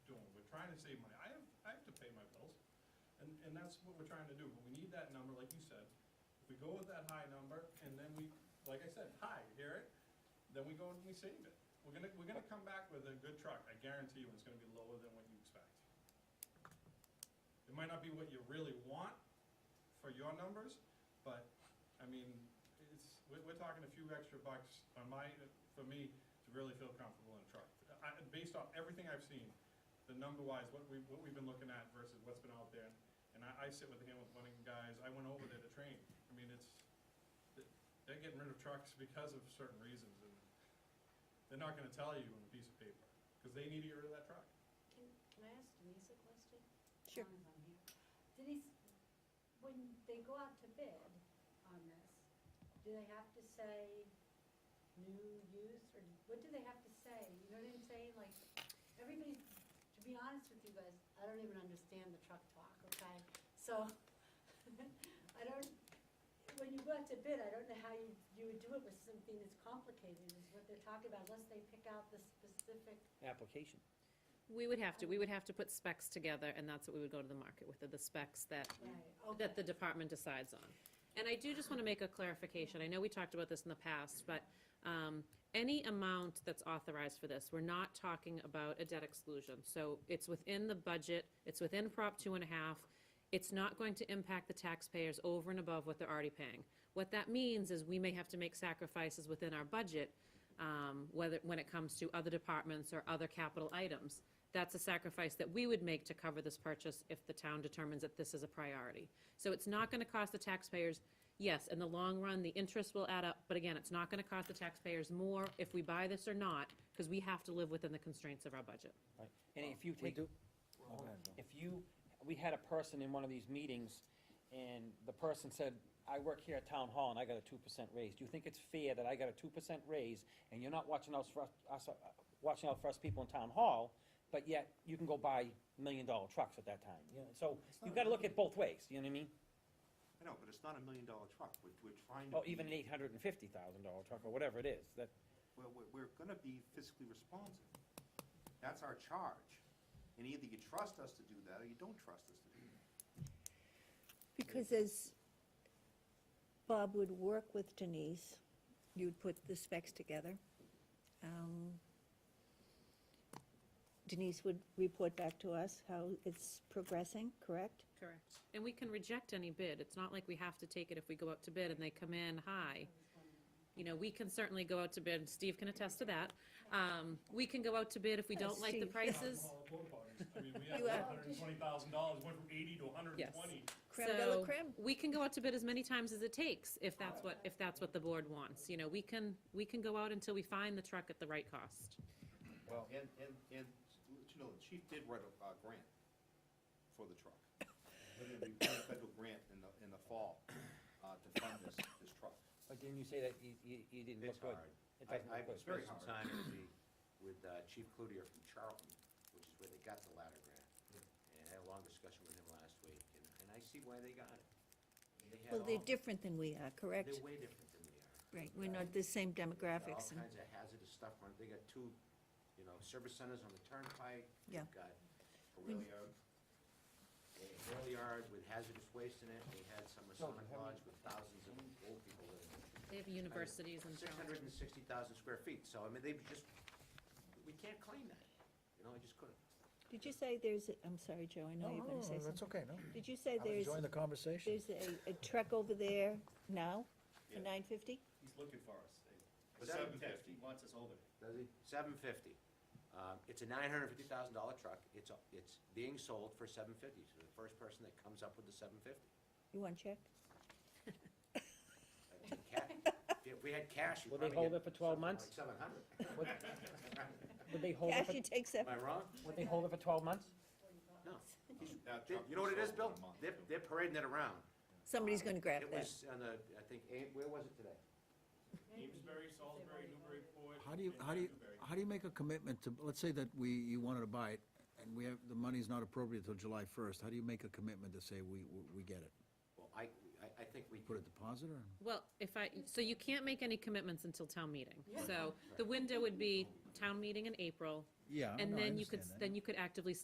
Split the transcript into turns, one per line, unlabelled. trying to save money. I have, I have to pay my bills. And, and that's what we're trying to do, but we need that number, like you said. If we go with that high number, and then we, like I said, high, hear it, then we go and we save it. We're gonna, we're gonna come back with a good truck, I guarantee you, it's gonna be lower than what you expect. It might not be what you really want for your numbers, but, I mean, it's, we're, we're talking a few extra bucks on my, for me, to really feel comfortable in a truck. I, based off everything I've seen, the number-wise, what we, what we've been looking at versus what's been out there, and I, I sit with the Hamilton Bunting guys, I went over there to train, I mean, it's, they're getting rid of trucks because of certain reasons, and they're not gonna tell you on a piece of paper, because they need to get rid of that truck.
Can, can I ask Denise a question?
Sure.
As long as I'm here. Denise, when they go out to bid on this, do they have to say new use, or what do they have to say? You know what I'm saying, like, everybody, to be honest with you guys, I don't even understand the truck talk, okay? So, I don't, when you go out to bid, I don't know how you, you would do it with something that's complicated, is what they're talking about, unless they pick out the specific
application.
We would have to, we would have to put specs together, and that's what we would go to the market with, are the specs that,
Right,
that the
okay.
department decides on. And I do just want to make a clarification, I know we talked about this in the past, but um, any amount that's authorized for this, we're not talking about a debt exclusion. So it's within the budget, it's within Prop two and a half, it's not going to impact the taxpayers over and above what they're already paying. What that means is we may have to make sacrifices within our budget um, whether, when it comes to other departments or other capital items. That's a sacrifice that we would make to cover this purchase if the town determines that this is a priority. So it's not going to cost the taxpayers, yes, in the long run, the interest will add up, but again, it's not going to cost the taxpayers more if we buy this or not, because we have to live within the constraints of our budget.
Right. And if you
We
take,
do, Oh, go ahead, Bill.
if you, we had a person in one of these meetings, and the person said, I work here at Town Hall and I got a two percent raise. Do you think it's fair that I got a two percent raise and you're not watching out for us- us, uh, watching out for us people in Town Hall, but yet you can go buy million dollar trucks at that time? You know, So you've gotta look at both ways, you know what I mean?
I know, but it's not a million dollar truck, we're, we're trying to.
Or Oh, even an
be-
eight hundred and fifty thousand dollar truck or whatever it is, that,
We're, we're, we're gonna be fiscally responsive. That's our charge. And either you trust us to do that, or you don't trust us to do that.
Because as Bob would work with Denise, you'd put the specs together. Um, Denise would report back to us how it's progressing, correct?
Correct. And we can reject any bid. It's not like we have to take it if we go out to bid and they come in high. You know, we can certainly go out to bid, Steve can attest to that. Um, we can go out to bid if we don't like the
Steve.
prices.
All the board parties. I mean, we had
You have-
hundred and twenty thousand dollars, went from eighty to hundred and
Yes.
twenty.
Creme de la
So,
creme.
We can go out to bid as many times as it takes, if that's what, if that's what the board wants. You know, we can, we can go out until we find the truck at the right cost.
Well, Oh, and, and, and, you know, the chief did write a, uh grant for the truck. We got a federal grant in the, in the fall, uh, to fund this, this truck.
but didn't you say that you, you, you didn't look
It's
good?
hard.
It
I,
doesn't
I
look good.
very
spent some
hard.
time with the, with uh, Chief Cloutier from Charlton, which is where they got the ladder grant.
Hmm.
And I had a long discussion with him last week, and, and I see why they got it. had
Well, they're
all-
different than we are, correct?
They're way different than we are.
Right, we're not the same
All
demographics. and-
kinds of hazardous stuff, on it. they got two, you know, service centers on the turnpike.
Yeah.
They've got a rail yard, a rail yard with hazardous waste in it, and they had some Masonic lodge with thousands of old people living in it.
They have universities and.
Six hundred and sixty thousand square feet, so I mean, they just, we can't claim that, you know, I just couldn't.
Did you say there's, a- I'm sorry, Joe, I know you're going to say
That's
something.
okay, no.
Did you say
I'm
there's,
enjoying the conversation.
there's a, a truck over there now
Yeah.
for nine fifty?
He's looking for us.
For
Seven
750.
fifty, he wants us over there.
Does he? Seven fifty. Um, it's a nine hundred fifty thousand dollar truck, it's, a- it's being sold for seven fifty, so the first person that comes up with the seven fifty.
You want to check?
If we had cash, we'd
Will they
probably
hold
get
it for 12
something
months?
Like seven hundred,
Would- Would they hold it,
Cash,
for-
you take
am I
seven.
wrong?
would they hold it for twelve months?
No.
That
They-
truck
You know what it
was
is,
sold in
Bill?
a month,
They're,
too.
they're parading it around.
Somebody's going to grab
It
that.
was on the, I think, eh, where was it today?
Amesbury, Salisbury, Newburyport.
How do you,
and
how do you,
Newbury.
how do you make a commitment to, let's say that we, you wanted to buy it, and we have, the money's not appropriate till July first, how do you make a commitment to say we, we we get it?
Well, I, I, I think we.
Put a deposit or?
Well, if I, so you can't make any commitments until town meeting. So the window would be town meeting in April.
Yeah,
And
no, I
then you could,
Oh, understand that.
then you could actively